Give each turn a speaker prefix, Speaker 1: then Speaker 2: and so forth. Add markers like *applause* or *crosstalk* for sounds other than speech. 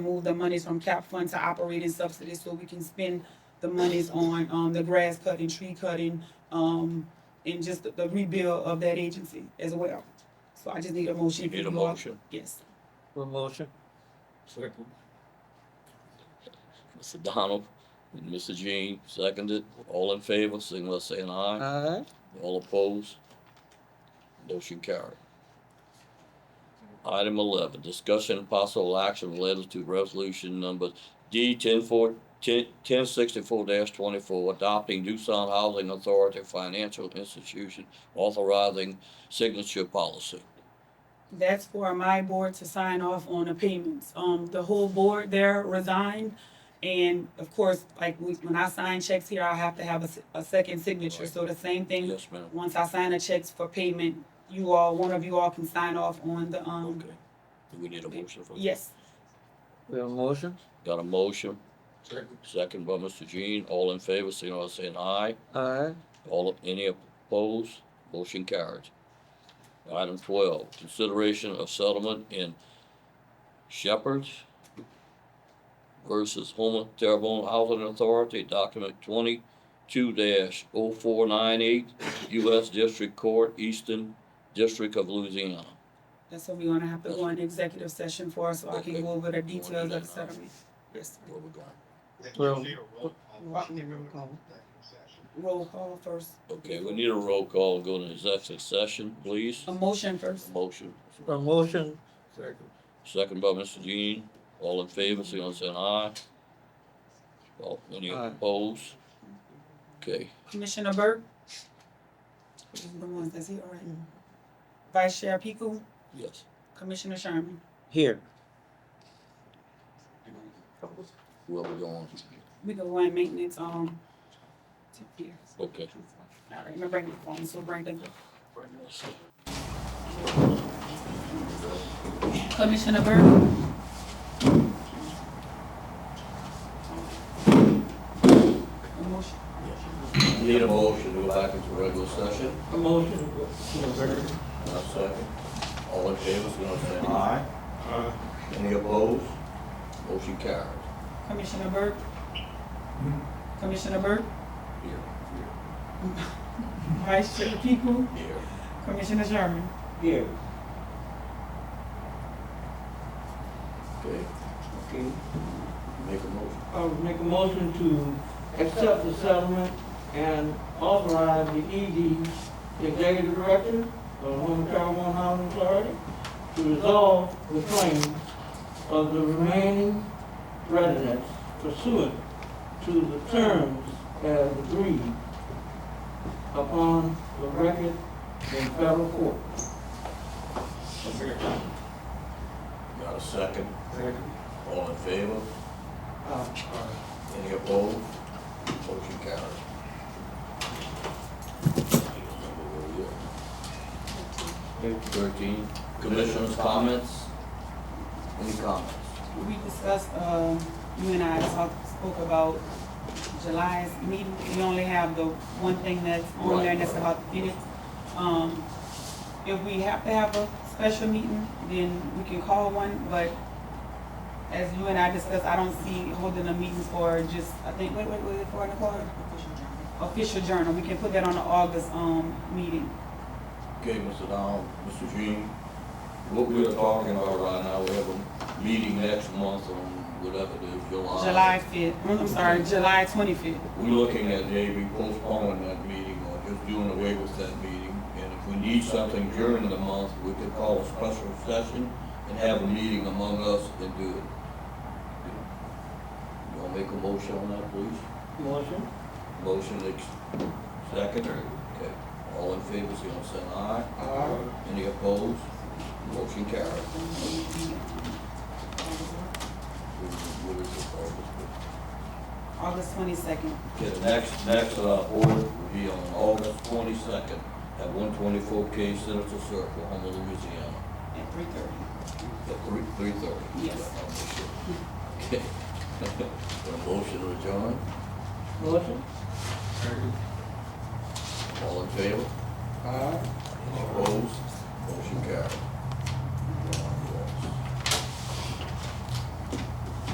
Speaker 1: move the monies from cap fund to operating subsidies so we can spend the monies on, um, the grass cutting, tree cutting, um, and just the- the rebuild of that agency as well. So I just need a motion.
Speaker 2: You need a
Speaker 1: If you all-
Speaker 2: motion.
Speaker 1: Yes.
Speaker 3: For motion?
Speaker 2: Second. Mr. Donald and Mr. Jean seconded. All in favor, signal by saying aye.
Speaker 3: Aye.
Speaker 2: All opposed? Motion carried. Item eleven, discussion and possible action related to resolution number D ten four, ten, ten sixty-four twenty-four, adopting Doosan Housing Authority Financial Institution authorizing signature policy.
Speaker 1: That's for my board to sign off on the payments. Um, the whole board there resigned. And of course, like we- when I sign checks here, I have to have a, s- a second signature. So the same thing,
Speaker 2: Yes, ma'am.
Speaker 1: once I sign the checks for payment, you all, one of you all can sign off on the, um,
Speaker 2: Okay. Do we need a motion for that?
Speaker 1: yes.
Speaker 3: We have a motion?
Speaker 2: Got a motion? Second by Mr. Jean. All in favor, signal by saying aye.
Speaker 3: Aye.
Speaker 2: All, any opposed? Motion carries. Item twelve, consideration of settlement in Shepherd versus Homer Terrebonne Housing Authority, document twenty-two oh 498 U.S. District Court, Eastern District of Louisiana.
Speaker 1: That's what we're gonna have to go into executive session for, so I
Speaker 2: Okay.
Speaker 1: can go over the
Speaker 2: do
Speaker 1: details of
Speaker 2: that
Speaker 1: the
Speaker 2: now.
Speaker 1: settlement. Yes,
Speaker 2: Where we going?
Speaker 3: Well-
Speaker 1: roll call first,
Speaker 2: Okay, we need a roll call, go to executive session, please.
Speaker 1: a motion first.
Speaker 2: Motion.
Speaker 3: For motion?
Speaker 2: Second by Mr. Jean. All in favor, signal by saying aye. All, any
Speaker 3: Aye.
Speaker 2: opposed? Okay,
Speaker 1: Commissioner Burke? These are The ones that's here, all right. Vice Chair Piku,
Speaker 2: yes.
Speaker 1: Commissioner Sherman.
Speaker 3: Here.
Speaker 2: Where we going?
Speaker 1: We go on maintenance, um, to here.
Speaker 2: Okay.
Speaker 1: All right, I'm gonna bring the phone, so bring the. Commissioner Burke? A motion.
Speaker 2: Need a motion to go back into regular session?
Speaker 3: A motion.
Speaker 2: Not second. All in favor, signal by saying aye. Any opposed? Motion carried.
Speaker 1: Commissioner Burke? Commissioner Burke?
Speaker 2: Here,
Speaker 1: Vice Chair Piku,
Speaker 2: here, here.
Speaker 1: Commissioner Sherman.
Speaker 3: Here.
Speaker 2: Okay,
Speaker 3: Okay.
Speaker 2: make a motion.
Speaker 3: I would make a motion to accept the settlement and authorize the ED, the executive director of Home Caravan Housing Authority, to resolve the claims of the remaining residents pursuant to the terms as agreed upon the record in federal court.
Speaker 2: Got a second? All in favor?
Speaker 3: Uh,
Speaker 2: Any opposed? Motion carries. Thirteen, commissioners' comments? Any comments?
Speaker 1: We discussed, uh, you and I talked, spoke about July's meeting. We only have the one thing that's on there, and that's about the minutes. Um, if we have to have a special meeting, then we can call one, but as you and I discussed, I don't see holding a meeting for just, I think, wait, wait, wait, for Nicole? Official journal. Official journal, we can put that on the August, um, meeting.
Speaker 2: Okay, Mr. Donald, Mr. Jean, what we're talking about right now, we have a meeting next month on whatever it is, July.
Speaker 1: July fifth, I'm sorry, July twenty-fifth.
Speaker 2: We're looking at maybe postponing that meeting or just doing away with that meeting. And if we need something during the month, we could call a special session and have a meeting among us and do it. You wanna make a motion on that, please?
Speaker 3: Motion?
Speaker 2: Motion ex- second, or, okay. All in favor, say aye, say aye. Any opposed? Motion carried. What is it, August?
Speaker 1: August twenty-second.
Speaker 2: Okay, the next, next, uh, board will be on August twenty-second at one twenty-four K Senator Circle, Homer, Louisiana,
Speaker 1: At three thirty.
Speaker 2: at three, three thirty.
Speaker 1: Yes.
Speaker 2: Okay. *laughs* Got a motion to adjourn,
Speaker 3: Motion?
Speaker 2: all in favor? Aye. Opposed, motion carried.